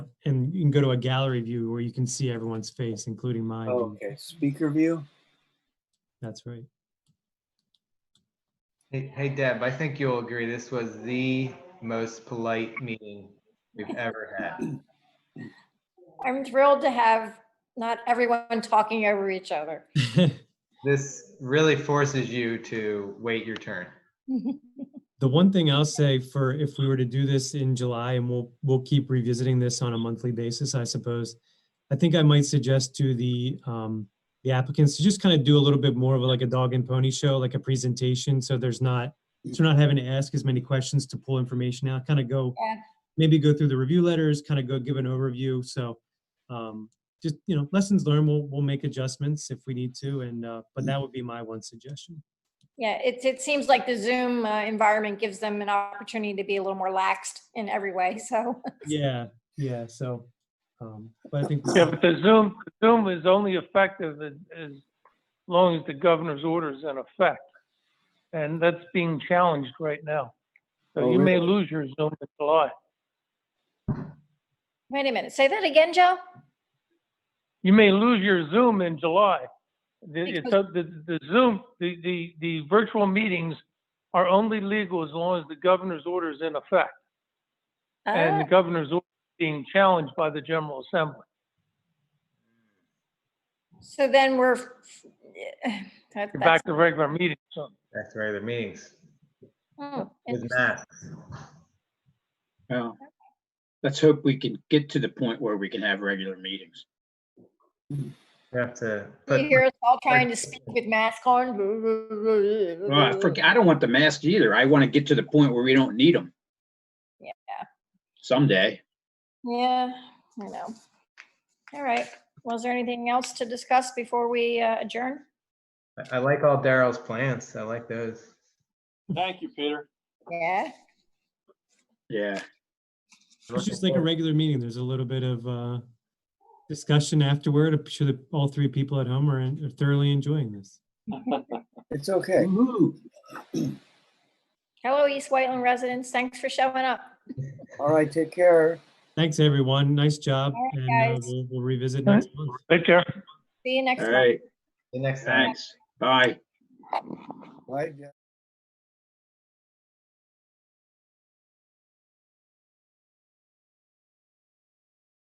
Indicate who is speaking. Speaker 1: and you can go to a gallery view where you can see everyone's face, including mine.
Speaker 2: Oh, Okay, speaker view.
Speaker 1: That's right.
Speaker 3: Hey, hey Deb, I think you'll agree, this was the most polite meeting we've ever had.
Speaker 4: I'm thrilled to have not everyone talking over each other.
Speaker 3: This really forces you to wait your turn.
Speaker 1: The one thing I'll say for if we were to do this in July, and we'll, we'll keep revisiting this on a monthly basis, I suppose. I think I might suggest to the, um, the applicants to just kind of do a little bit more of like a dog and pony show, like a presentation, so there's not, so we're not having to ask as many questions to pull information out, kind of go,
Speaker 4: Yeah.
Speaker 1: maybe go through the review letters, kind of go give an overview, so, um, just, you know, lessons learned, we'll, we'll make adjustments if we need to, and, uh, but that would be my one suggestion.
Speaker 4: Yeah, it, it seems like the Zoom uh, environment gives them an opportunity to be a little more laxed in every way, so.
Speaker 1: Yeah, yeah, so, um, but I think.
Speaker 5: Yeah, but the Zoom, Zoom is only effective as, as long as the governor's order is in effect. And that's being challenged right now. So
Speaker 2: Oh,
Speaker 5: you may
Speaker 2: really?
Speaker 5: lose your Zoom in July.
Speaker 4: Wait a minute, say that again, Joe?
Speaker 5: You may lose your Zoom in July. The, it's,
Speaker 4: Because-
Speaker 5: up- the, the Zoom, the, the, the virtual meetings are only legal as long as the governor's order is in effect. And the
Speaker 4: Ah,
Speaker 5: governor's order is being challenged by the General Assembly.
Speaker 4: So then we're, that-
Speaker 5: You're
Speaker 4: that's,
Speaker 5: back to regular meetings, so.
Speaker 3: Back to regular meetings
Speaker 4: hmm,
Speaker 3: with
Speaker 4: interesting.
Speaker 3: masks.
Speaker 6: Well, let's hope we can get to the point where we can have regular meetings.
Speaker 3: You have to
Speaker 4: Do
Speaker 3: put,
Speaker 4: you hear us all trying to speak with masks on?
Speaker 5: Oh,
Speaker 6: Well, I forget, I don't want the masks either. I want to get to the point where we don't need them.
Speaker 4: Yeah.
Speaker 6: Someday.
Speaker 4: Yeah, I know. All right, was there anything else to discuss before we uh, adjourn?
Speaker 3: I like all Daryl's plans. I like those.
Speaker 7: Thank you, Peter.
Speaker 4: Yeah.
Speaker 6: Yeah.
Speaker 1: It's just like a regular meeting. There's a little bit of uh, discussion afterward. I'm sure that all three people at home are en- are thoroughly enjoying this.
Speaker 2: It's okay.
Speaker 4: Hello, East Whiteland residents. Thanks for showing up.
Speaker 2: All right, take care.
Speaker 1: Thanks, everyone. Nice job.
Speaker 4: All right,
Speaker 1: And uh,
Speaker 4: guys.
Speaker 1: we'll- we'll revisit
Speaker 5: All
Speaker 1: next month.
Speaker 5: Take care.
Speaker 4: See you next
Speaker 6: All
Speaker 4: month.
Speaker 6: right.
Speaker 3: The next time.
Speaker 6: Thanks. Bye.
Speaker 2: Bye, Jeff.